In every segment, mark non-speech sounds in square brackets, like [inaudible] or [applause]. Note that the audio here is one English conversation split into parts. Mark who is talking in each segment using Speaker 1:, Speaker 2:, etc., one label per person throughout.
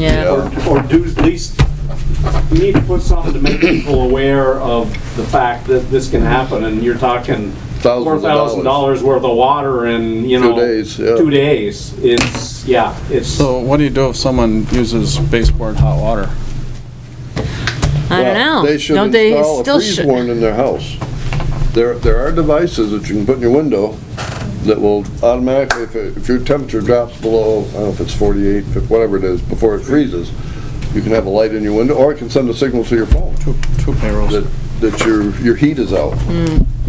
Speaker 1: Yeah.
Speaker 2: or do at least, we need to put something to make people aware of the fact that this can happen, and you're talking four
Speaker 3: Thousands of
Speaker 2: thousand dollars worth of water in, you
Speaker 3: Two
Speaker 2: know.
Speaker 3: days, yeah.
Speaker 2: Two days, it's, yeah, it's,
Speaker 4: So what do you do if someone uses baseboard hot water?
Speaker 1: I don't know.
Speaker 3: They should
Speaker 1: Don't they
Speaker 3: install a
Speaker 1: still
Speaker 3: freeze
Speaker 1: should?
Speaker 3: warning in their house. There, there are devices that you can put in your window that will automatically, if, it- if your temperature drops below, I don't know if it's 48, fif- whatever it is, before it freezes, you can have a light in your window, or it can send a signal to your phone
Speaker 4: Two, two payrolls.
Speaker 3: that, that your, your heat is out.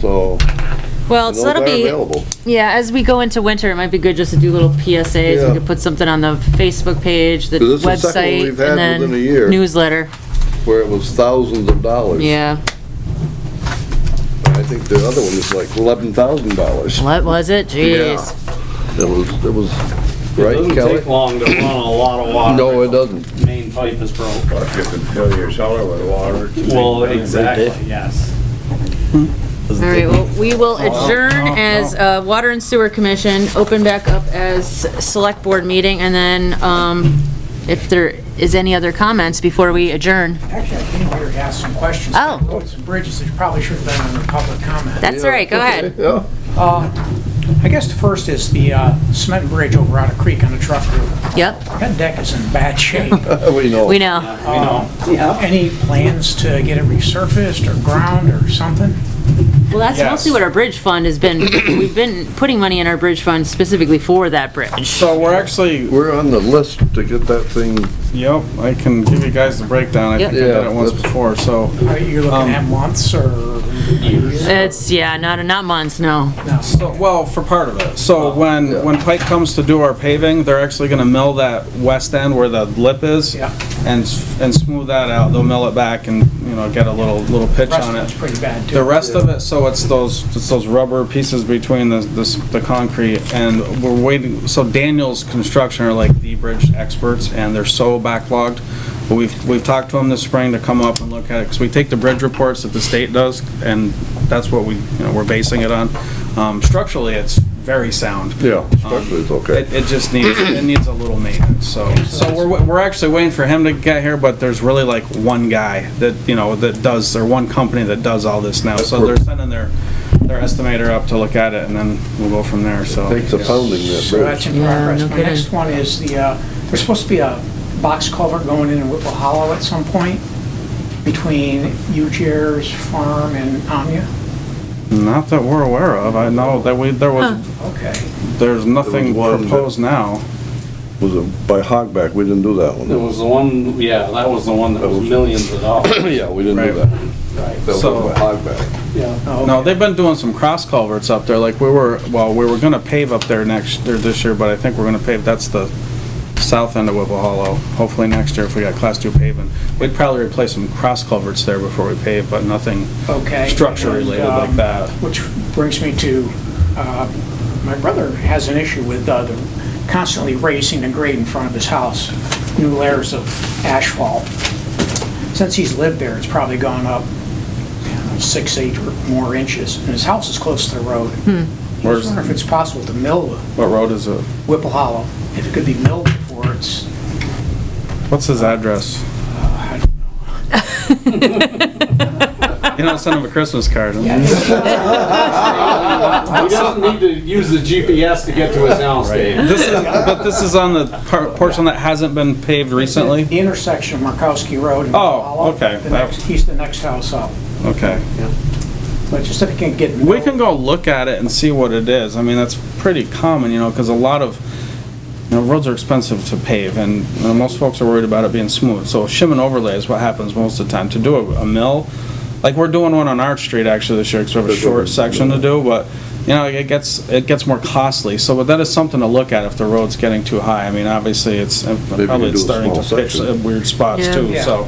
Speaker 3: So,
Speaker 1: Hmm. Well,
Speaker 3: and
Speaker 1: so
Speaker 3: those are
Speaker 1: that'll be,
Speaker 3: available.
Speaker 1: yeah, as we go into winter, it might be good just to do little PSAs.
Speaker 3: Yeah.
Speaker 1: We could put something on the Facebook page, the
Speaker 3: 'Cause this is the second one
Speaker 1: website,
Speaker 3: we've had
Speaker 1: and then
Speaker 3: within a year.
Speaker 1: newsletter.
Speaker 3: Where it was thousands of dollars.
Speaker 1: Yeah.
Speaker 3: I think the other one was like $11,000.
Speaker 1: What was it? Jeez.
Speaker 3: It was, it was,
Speaker 2: it
Speaker 3: right,
Speaker 2: doesn't
Speaker 3: Kelly?
Speaker 2: take long to run a lot of water.
Speaker 3: No, it doesn't.
Speaker 2: The Main pipe is broke.
Speaker 5: Or if you can fill your cellar with water.
Speaker 2: Well, exactly, yes.
Speaker 1: All right, well, we
Speaker 3: [laughs]
Speaker 1: will adjourn as uh, Water and Sewer Commission, open back up as Select Board meeting, and then um, if there is any other comments before we adjourn.
Speaker 6: Actually, I came here to ask some questions.
Speaker 1: Oh.
Speaker 6: about Roads and bridges that probably should have been under public comment.
Speaker 1: That's all right, go
Speaker 3: [laughs]
Speaker 1: ahead.
Speaker 3: Yeah.
Speaker 6: I guess the first is the uh, cement bridge over Otter Creek on the truck route.
Speaker 1: Yep,
Speaker 6: That deck is in bad shape.
Speaker 3: We know.
Speaker 1: we know.
Speaker 6: Any plans to get it resurfaced or ground or something?
Speaker 1: Well, that's mostly what our bridge fund has been, we've been putting money in our bridge fund specifically for that bridge.
Speaker 4: So we're actually,
Speaker 3: We're on the list to get that thing,
Speaker 4: yep, I can give you guys the breakdown. I
Speaker 1: Yep.
Speaker 4: think I did
Speaker 3: Yeah,
Speaker 4: it once
Speaker 3: that's-
Speaker 4: before, so.
Speaker 6: Are you
Speaker 4: Um,
Speaker 6: looking at months or years?
Speaker 1: It's, yeah, not, not months, no.
Speaker 4: So, well, for part of it. So when, when Pike comes to do our paving, they're actually gonna mill that west end where the lip is.
Speaker 6: Yeah.
Speaker 4: And, s- and smooth that out. They'll mill it back and, you know, get a little, little pitch
Speaker 6: Rest of
Speaker 4: on
Speaker 6: it's
Speaker 4: it.
Speaker 6: pretty bad
Speaker 4: The
Speaker 6: too.
Speaker 4: rest of it, so it's those, it's those rubber pieces between the, the, s- the concrete and we're waiting, so Daniel's Construction are like the bridge experts and they're so backlogged. But we've, we've talked to them this spring to come up and look at it, because we take the bridge reports that the state does and that's what we, you know, we're basing it on. Um, structurally, it's very sound. Um,
Speaker 3: yeah, structurally it's okay.
Speaker 4: It, it just needs, it needs a little maintenance, so, so we're, wa- we're actually waiting for him to get here, but there's really like one guy that, you know, that does, or one company that does all this now, so they're sending their, their estimator up to look at it, and then we'll go from there, so.
Speaker 3: Takes a pounding that
Speaker 6: So that's
Speaker 3: bridge.
Speaker 6: in
Speaker 1: Yeah,
Speaker 6: progress.
Speaker 1: no
Speaker 6: My
Speaker 1: kidding.
Speaker 6: next one is the, uh, there's supposed to be a box culvert going in in Whipple Hollow at some point between Ujair's farm and Amia.
Speaker 4: Not that we're aware of, I know that we, there was,
Speaker 6: Okay.
Speaker 4: there's nothing
Speaker 3: There was one that-
Speaker 4: proposed now.
Speaker 3: Was it by Hogback? We didn't do that
Speaker 2: It
Speaker 3: one.
Speaker 2: was the one, yeah, that was the one that was millions of dollars.
Speaker 3: [laughs] Yeah, we didn't do
Speaker 4: Right.
Speaker 3: that. That was
Speaker 4: So-
Speaker 3: by Hogback.
Speaker 6: Oh,
Speaker 2: Yeah.
Speaker 4: No, they've been doing some cross culverts up there, like we were, well, we were gonna pave up there next, or this year, but I think we're gonna pave, that's the south end of Whipple Hollow, hopefully next year if we got class two paving. We'd probably replace some cross culverts there before we pave, but nothing
Speaker 6: Okay.
Speaker 4: structure related
Speaker 6: And, um,
Speaker 4: like that.
Speaker 6: Which brings me to, uh, my brother has an issue with uh, the constantly raising the grade in front of his house, new layers of asphalt. Since he's lived there, it's probably gone up I don't know, six, eight or more inches, and his house is close to the road. I was
Speaker 4: Where's-
Speaker 6: wondering if it's possible to mill
Speaker 4: What road is it?
Speaker 6: Whipple Hollow, if it could be milled before it's,
Speaker 4: What's his address?
Speaker 6: uh, I- [laughs]
Speaker 4: You know, send him a Christmas card.
Speaker 2: He doesn't need to use the GPS to get to his house, Dave.
Speaker 4: This is, but this is on the part, portion that hasn't been paved recently?
Speaker 6: the intersection of Markowski Road and
Speaker 4: Oh,
Speaker 6: Whipple Hollow.
Speaker 4: okay.
Speaker 6: the next- He's the next house up.
Speaker 4: Okay.
Speaker 6: But just if it can get.
Speaker 4: We can go look at it and see what it is. I mean, that's pretty common, you know, because a lot of, you know, roads are expensive to pave and you know, most folks are worried about it being smooth. So shim and overlay is what happens most of the time. To do a, a mill, like we're doing one on Arch Street actually this year, because we have a short section to do, but, you know, it gets, it gets more costly. So, but that is something to look at if the road's getting too high. I mean, obviously, it's,
Speaker 3: you
Speaker 4: probably
Speaker 3: do
Speaker 4: it's
Speaker 3: a
Speaker 4: starting to
Speaker 3: small
Speaker 4: pitch
Speaker 3: section.
Speaker 4: at weird spots
Speaker 1: Yeah.
Speaker 4: too,
Speaker 6: Yeah.
Speaker 4: so.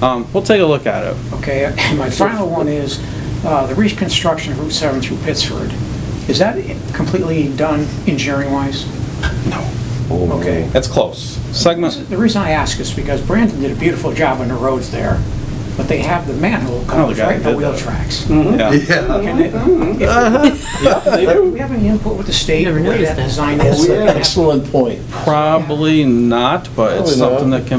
Speaker 4: Um, we'll take a look at it.
Speaker 6: Okay, and my final one is uh, the reconstruction of Route 7 through Pittsford. Is that completely done engineering-wise? No. Okay.
Speaker 4: It's close. Segment,
Speaker 6: The reason I ask is because Brandon did a beautiful job on the roads there, but they have the manhole covers
Speaker 4: guy
Speaker 6: right in the
Speaker 4: did
Speaker 6: wheel
Speaker 4: that. Mm-hmm.
Speaker 6: tracks.
Speaker 3: Mm-hmm.
Speaker 4: yeah.
Speaker 3: Yeah.
Speaker 6: Can it- if-
Speaker 2: They
Speaker 6: Do
Speaker 2: do.
Speaker 6: we have any input with the state,
Speaker 1: Never
Speaker 6: the way
Speaker 1: noticed
Speaker 6: that
Speaker 4: Oh,
Speaker 1: that.
Speaker 6: design is?
Speaker 7: Excellent point.
Speaker 4: Probably not, but it's
Speaker 3: Probably not.
Speaker 4: something that can